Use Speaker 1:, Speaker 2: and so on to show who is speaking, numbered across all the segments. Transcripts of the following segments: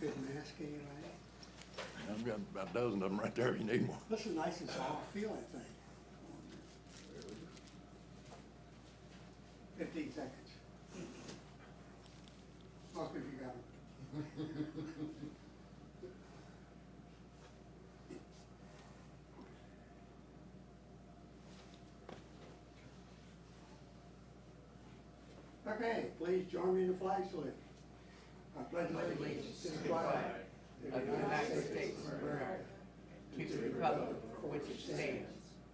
Speaker 1: good mask anyway.
Speaker 2: I've got about a dozen of them right there if you need one.
Speaker 1: This is nice and soft feeling thing. Fifteen seconds. Look if you got it. Okay, please join me in the flag salute. I pledge allegiance to the flag
Speaker 3: of the United States of America, to the republic for which it stands,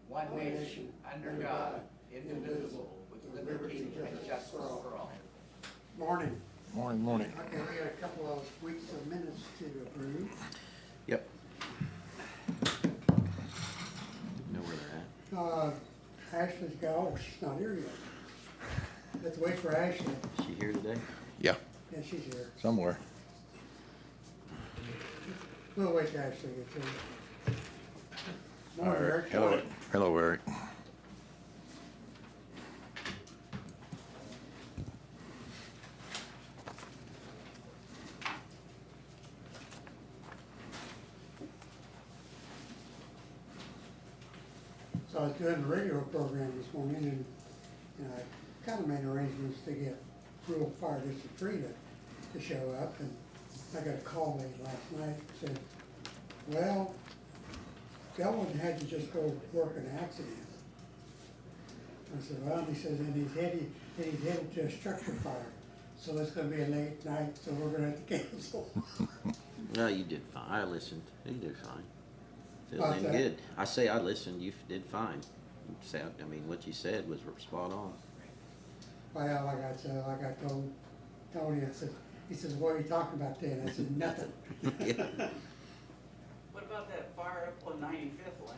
Speaker 3: one nation, under God, indivisible, with liberty and justice for all.
Speaker 1: Morning.
Speaker 2: Morning, morning.
Speaker 1: Okay, we got a couple of weeks of minutes to approve.
Speaker 2: Yep.
Speaker 4: Know where they're at?
Speaker 1: Uh, Ashley's got, oh, she's not here yet. Let's wait for Ashley,
Speaker 4: Is she here today?
Speaker 2: Yeah,
Speaker 1: and she's here.
Speaker 2: somewhere.
Speaker 1: We'll wait till Ashley gets here.
Speaker 2: All
Speaker 1: Morning,
Speaker 2: right.
Speaker 1: Eric.
Speaker 2: Hello, hello, Eric.
Speaker 1: So I was doing the radio program this morning and, and I kind of made arrangements to get rural fire district three to, to show up and I got a call late last night that said, well, that one had to just go work an accident. I said, well, he says, and he's headed, and he's headed to a structure fire, so it's gonna be a late night, so we're gonna have to cancel.
Speaker 4: No, you did fine. I listened. You did fine.
Speaker 1: How's
Speaker 4: Feeling
Speaker 1: that?
Speaker 4: good. I say I listened. You did fine. Sound, I mean, what you said was spot on.
Speaker 1: Well, like I said, like I told Tony, I said, he says, what are you talking about then? I said, nothing.
Speaker 4: Yeah.
Speaker 3: What about that fire up on ninety-fifth, Lynn?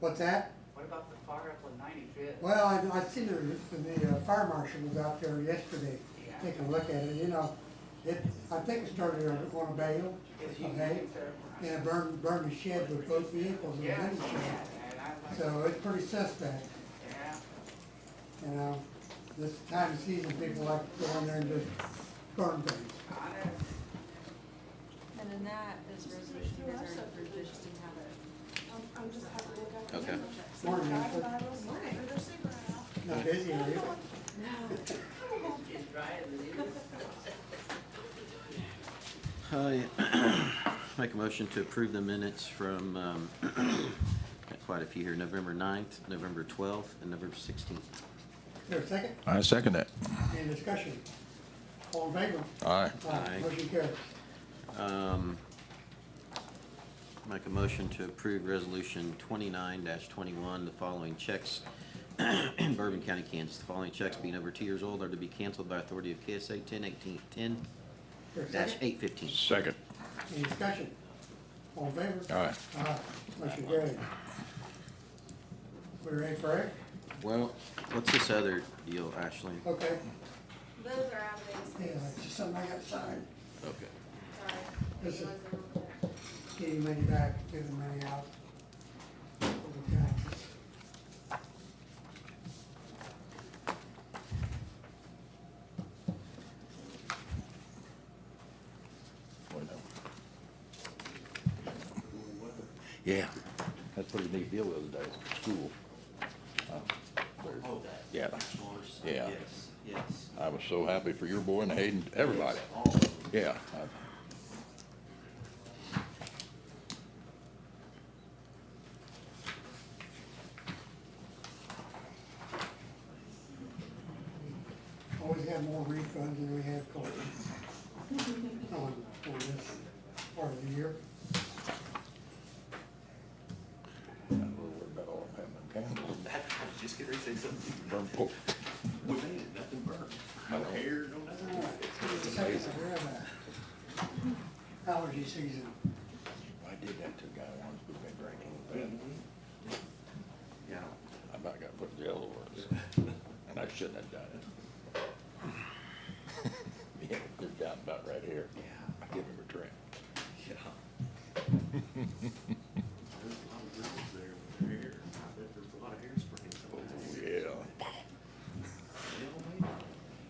Speaker 1: What's that?
Speaker 3: What about the fire up on ninety-fifth?
Speaker 1: Well, I, I seen the, the uh, fire marshal was out there yesterday,
Speaker 3: Yeah.
Speaker 1: taking a look at it, you know, it, I think it started on on a bale, okay? And it burned, burned the shed with both vehicles and the
Speaker 3: Yeah,
Speaker 1: windshield.
Speaker 3: yeah, and I like,
Speaker 1: So it's pretty suspect,
Speaker 3: yeah,
Speaker 1: you know, this time of season, people like to go in there and just burn things.
Speaker 3: I know.
Speaker 5: And then that is resolution, you guys already approved, I just didn't have it.
Speaker 6: I'm, I'm just having to look at
Speaker 4: Okay.
Speaker 1: Morning, Lisa.
Speaker 6: Morning. They're super now.
Speaker 1: Not busy, are you?
Speaker 5: No.
Speaker 3: It's dry as it is.
Speaker 4: I make a motion to approve the minutes from, um, got quite a few here, November 9th, November 12th, and November 16th.
Speaker 1: Here, second,
Speaker 2: I second that.
Speaker 1: any discussion? All in favor?
Speaker 2: Aye.
Speaker 4: Aye.
Speaker 1: Motion carries.
Speaker 4: Um, Make a motion to approve Resolution 29-21, the following checks in Bourbon County, Kansas. The following checks being over two years old are to be canceled by authority of KSA 10-815.
Speaker 1: Here, second.
Speaker 2: Second.
Speaker 1: Any discussion? All in favor?
Speaker 2: Aye.
Speaker 1: Aye, motion carried. We ready for it?
Speaker 4: Well, what's this other deal, Ashley?
Speaker 1: Okay,
Speaker 6: Those are out of
Speaker 1: yeah, it's just something I got signed.
Speaker 2: Okay.
Speaker 1: This is-
Speaker 6: sorry.
Speaker 1: Getting money back, giving money out. Over time.
Speaker 2: Yeah, that's what we need to deal with today, school. Uh, there's-
Speaker 7: Oh, that.
Speaker 2: Yeah.
Speaker 7: That's yours.
Speaker 2: Yeah.
Speaker 7: Yes, yes.
Speaker 2: I was so happy for your boy and Hayden, everybody.
Speaker 7: Yes, all of them.
Speaker 2: Yeah. I-
Speaker 1: Always have more refunds than we have collections. On, on this part of the year.
Speaker 2: I'm a little worried about all of them having candles.
Speaker 7: That, I was just gonna say something.
Speaker 2: Burn pork.
Speaker 7: We made it, nothing burned. No hair, no
Speaker 1: All
Speaker 7: nothing.
Speaker 1: right, second, so we're about allergy season.
Speaker 2: I did that to a guy once, we've been drinking.
Speaker 7: Yeah.
Speaker 2: I about got put in jail over it, and I shouldn't have done it.